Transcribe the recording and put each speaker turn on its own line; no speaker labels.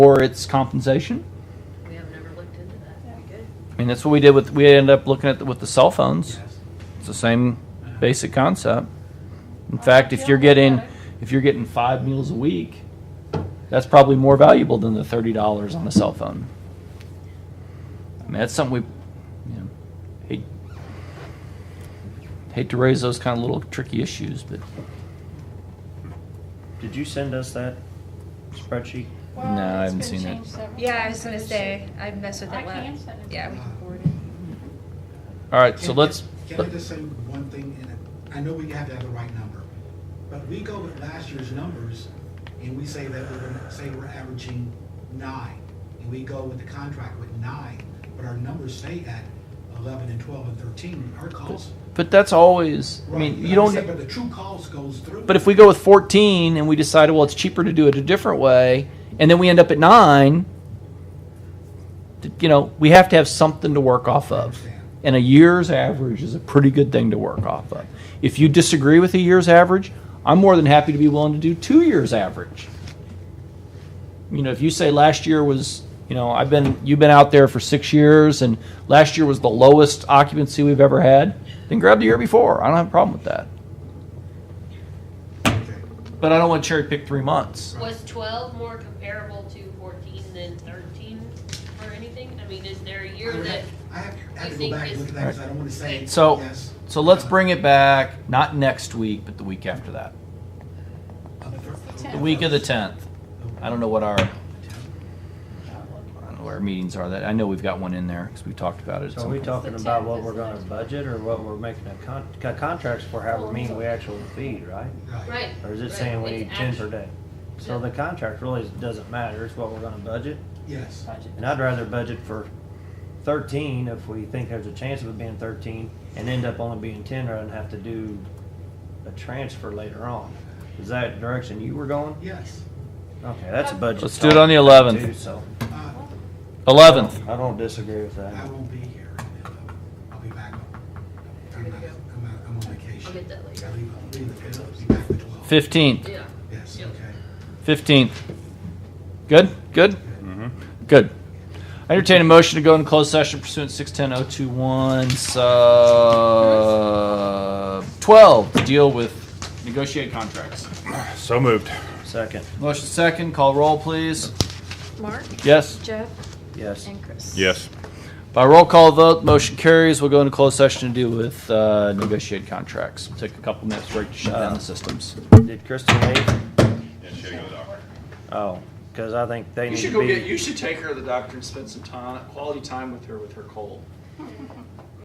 or its compensation.
We have never looked into that. That'd be good.
I mean, that's what we did with, we ended up looking at, the- with the cell phones. It's the same basic concept. In fact, if you're getting, if you're getting five meals a week, that's probably more valuable than the thirty dollars on a cell phone. I mean, that's something we, you know, hate, hate to raise those kind of little tricky issues, but
Did you send us that spreadsheet?
Well,
No, I
it's
haven't
been
seen it.
changed several
Yeah, I
times.
was gonna say, I messed with
I
it last.
can send it.
Yeah, we
can forward
all right, so
Can-
let's.
Can I just say one thing, and I know we have to have the right number, but we go with last year's numbers, and we say that we're gonna, say we're averaging nine, and we go with the contract with nine, but our numbers stay at eleven and twelve and thirteen, our calls.
But that's always, I
Right,
mean,
but
you
I'm saying,
don't,
But the true calls goes through.
But if we go with 14 and we decide, well, it's cheaper to do it a different way, and then we end up at nine, th- you know, we have to have something to work off of. And a year's average is a pretty good thing to work off of. If you disagree with a year's average, I'm more than happy to be willing to do two years' average. You know, if you say last year was, you know, I've been, you've been out there for six years, and last year was the lowest occupancy we've ever had, then grab the year before. I don't have a problem with that.
Okay.
But I don't want to cherry pick three months.
Was twelve more comparable to fourteen than thirteen or anything? I mean, is there a year
I would
that,
have- I have, I have
you
to go
think
back and
is-
look at that, because I don't wanna say.
So-
yes,
So let's
uh,
bring it back, not next week, but the week after that.
on thir-
It's the
The week of the 10th. I don't know what our, I don't know what our meetings are that, I know we've got one in there because we talked about it. at
So are
some
we
point.
talking
It's the
about
tenth,
what we're
isn't it?
gonna budget or what we're making a con, co- contracts for, how we're meeting we actually feed, right?
right?
Or is it
right,
saying we
it's
need ten per
actu-
day? So the contract really doesn't matter, it's what we're gonna budget.
Yes,
budget.
And I'd rather budget for thirteen if we think there's a chance of it being thirteen and end up only being ten rather than have to do a transfer later on. Is that direction you were going?
yes.
Okay, that's a budget.
Let's do it on the 11th.
too, So
Uh,
11th.
I don't disagree with
I
that.
won't be here. I'll be back. I'm, not, I'm, not, I'm on vacation.
I'll get that later.
I leave, I'll leave the fifth. I'll be back the 12th.
15th.
Yeah.
Yes,
Yep.
okay.
15th. Good? Good? Good. I entertain a motion to go into closed session pursuant to 610-021, sub 12, to deal with negotiated contracts.
So moved.
Second,
Motion second, call roll, please.
Mark,
Yes?
Jeff,
yes.
and Chris.
Yes.
By roll call vote, motion carries. We'll go into closed session to deal with uh, negotiated contracts. We'll Take a couple minutes break to shut down the systems.
Did Kristen leave? Oh, because I think they need to be.
should take her to the doctor and spend some time, quality time with her with her cold.